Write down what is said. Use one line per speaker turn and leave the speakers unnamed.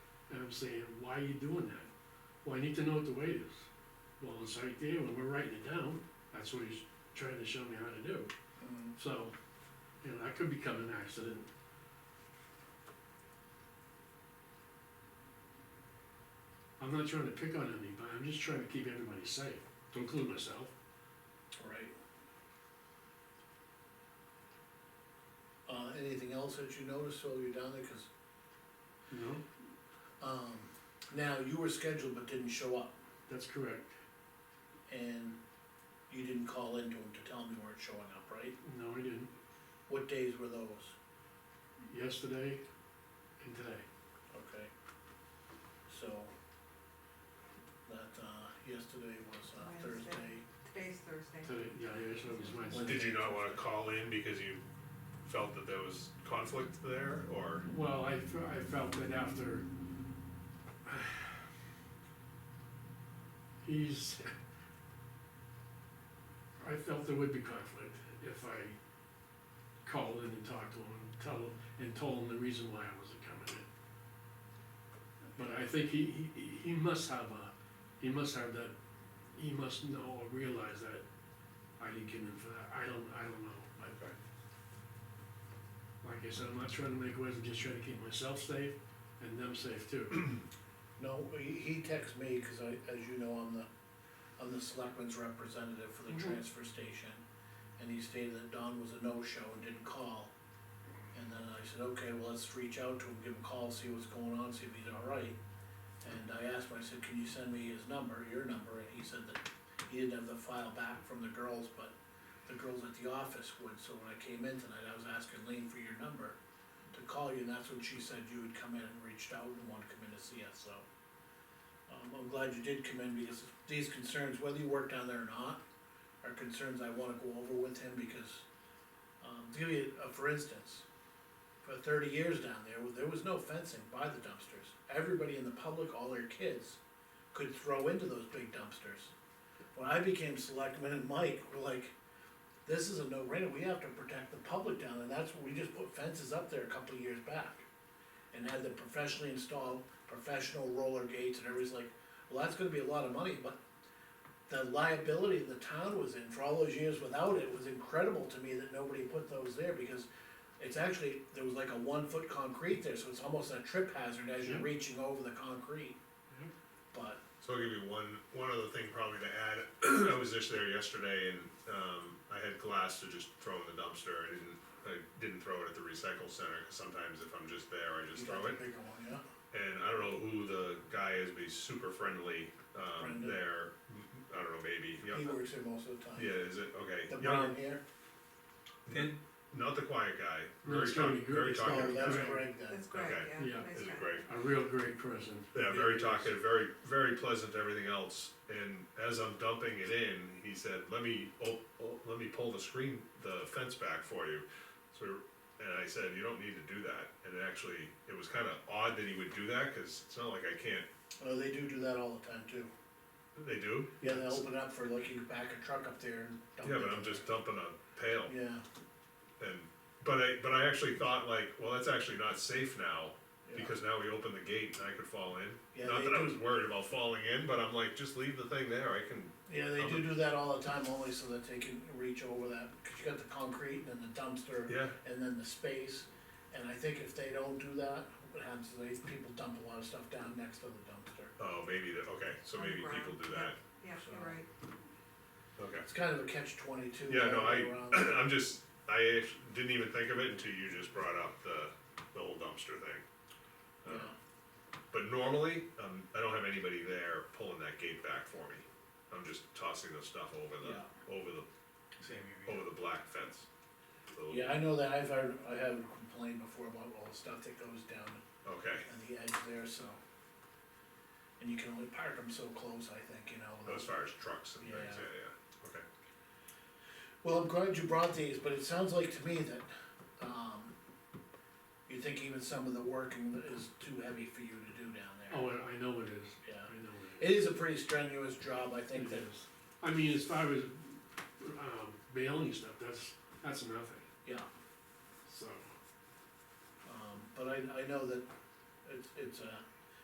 them saying, why are you doing that? Well, I need to know what the weight is. Well, it's right there, when we're writing it down, that's what he's trying to show me how to do.
Mm,
So, you know, that could become an accident. I'm not trying to pick on anybody, I'm just trying to keep everybody safe, to include myself.
Right. Uh, anything else that you noticed while you're down there, cause,
You know,
um, now you were scheduled but didn't show up,
that's correct.
and you didn't call into him to tell him you weren't showing up, right?
No, I didn't.
What days were those?
Yesterday and today.
Okay. So, that, uh, yesterday was, uh,
Wednesday.
Thursday,
Today's Thursday.
Today, yeah, yesterday was
When
Wednesday.
Did you not wanna call in because you felt that there was conflict there, or?
Well, I, fe- I felt that after. He's. I felt there would be conflict if I called in and talked to him, tell him, and told him the reason why I wasn't coming in. But I think he, he, he must have a, he must have that, he must know or realize that I didn't get in for that, I don't, I don't know, but like I said, I'm not trying to make waves, I'm just trying to keep myself safe and them safe too.
No, he, he texted me, cause I, as you know, I'm the, I'm the selectman's representative for the
Mhm.
transfer station. And he stated that Don was a no-show and didn't call. And then I said, okay, well, let's reach out to him, give him a call, see what's going on, see if he's alright. And I asked him, I said, can you send me his number, your number, and he said that he didn't have the file back from the girls, but the girls at the office would, so when I came in tonight, I was asking Lean for your number to call you, and that's when she said you had come in and reached out and wanted to come in to see us, so. Um, I'm glad you did come in, because these concerns, whether you work down there or not, are concerns I wanna go over with him, because, um, to give you, a- for instance, for thirty years down there, there was no fencing by the dumpsters, everybody in the public, all their kids, could throw into those big dumpsters. When I became selectman and Mike were like, this is a no-brainer, we have to protect the public down, there." and that's when we just put fences up there a couple of years back. And had them professionally installed, professional roller gates, and everybody's like, well, that's gonna be a lot of money, but the liability the town was in for all those years without it was incredible to me that nobody put those there, because it's actually, there was like a one-foot concrete there, so it's almost a trip hazard as you're
Yeah.
reaching over the concrete.
Yeah.
But
So I'll give you one, one other thing probably to add, I was just there yesterday and, um, I had glass to just throw in the dumpster, I didn't, I didn't throw it at the recycle center, 'cause sometimes if I'm just there, I just
You got
throw
the
it.
Bigger one, yeah.
And I don't know who the guy is, but he's super friendly, um,
Brendan.
there, I don't know, maybe,
He
yeah,
works there most of the time.
yeah, is it, okay.
The
Young-
brown hair,
N- Not the quiet guy,
No,
very
it's gotta
talk,
be good.
very
It's gotta
oh,
talkative,
be
that's
Greg.
Greg then,
That's great,
Okay.
yeah.
Yeah.
nice
this is
guy.
great.
A real great person.
Yeah, very talkative, very, very pleasant, everything else, and as I'm dumping it in, he said, let me, oh, oh, let me pull the screen, the fence back for you. So, and I said, you don't need to do that, and actually, it was kinda odd that he would do that, cause it's not like I can't,
oh, they do do that all the time too.
they do.
Yeah, they open up for like you can back a truck up there and dump it.
Yeah, but I'm just dumping a pail,
Yeah,
and, but I, but I actually thought like, well, that's actually not safe now, because now we open the gate and I could fall in.
yeah,
Not
they
that I was
do,
worried about falling in, but I'm like, just leave the thing there, I can,
yeah, they
I'm
do
a-
do that all the time only so that they can reach over that, cause you got the concrete and then the dumpster
yeah,
and then the space. And I think if they don't do that, what happens is they, people dump a lot of stuff down next to the dumpster.
oh, maybe, that- okay, so
On the
maybe people
ground,
do
yeah.
that,
Yeah,
So-
you're right.
okay.
It's kind of a catch twenty-two.
Yeah, no,
all the way around.
I, I'm just, I act- didn't even think of it until you just brought up the, the whole dumpster thing.
Yeah.
Uh, But normally, um, I don't have anybody there pulling that gate back for me, I'm just tossing the stuff over the, over the,
Same here.
over the black fence. The little-
Yeah, I know that, I've heard, I have complained before about all the stuff that goes down
Okay,
on the edge there, so. And you can only park them so close, I think, you know.
as far as trucks and things,
Yeah.
yeah, yeah, okay.
Well, I'm glad you brought these, but it sounds like to me that, um, you think even some of the working is too heavy for you to do down there.
Oh, I I know it is,
Yeah,
I know it is.
it is a pretty strenuous job, I think
It
that,
is. I mean, as far as, um, mailing stuff, that's, that's nothing,
yeah.
so.
Um, but I, I know that it's, it's a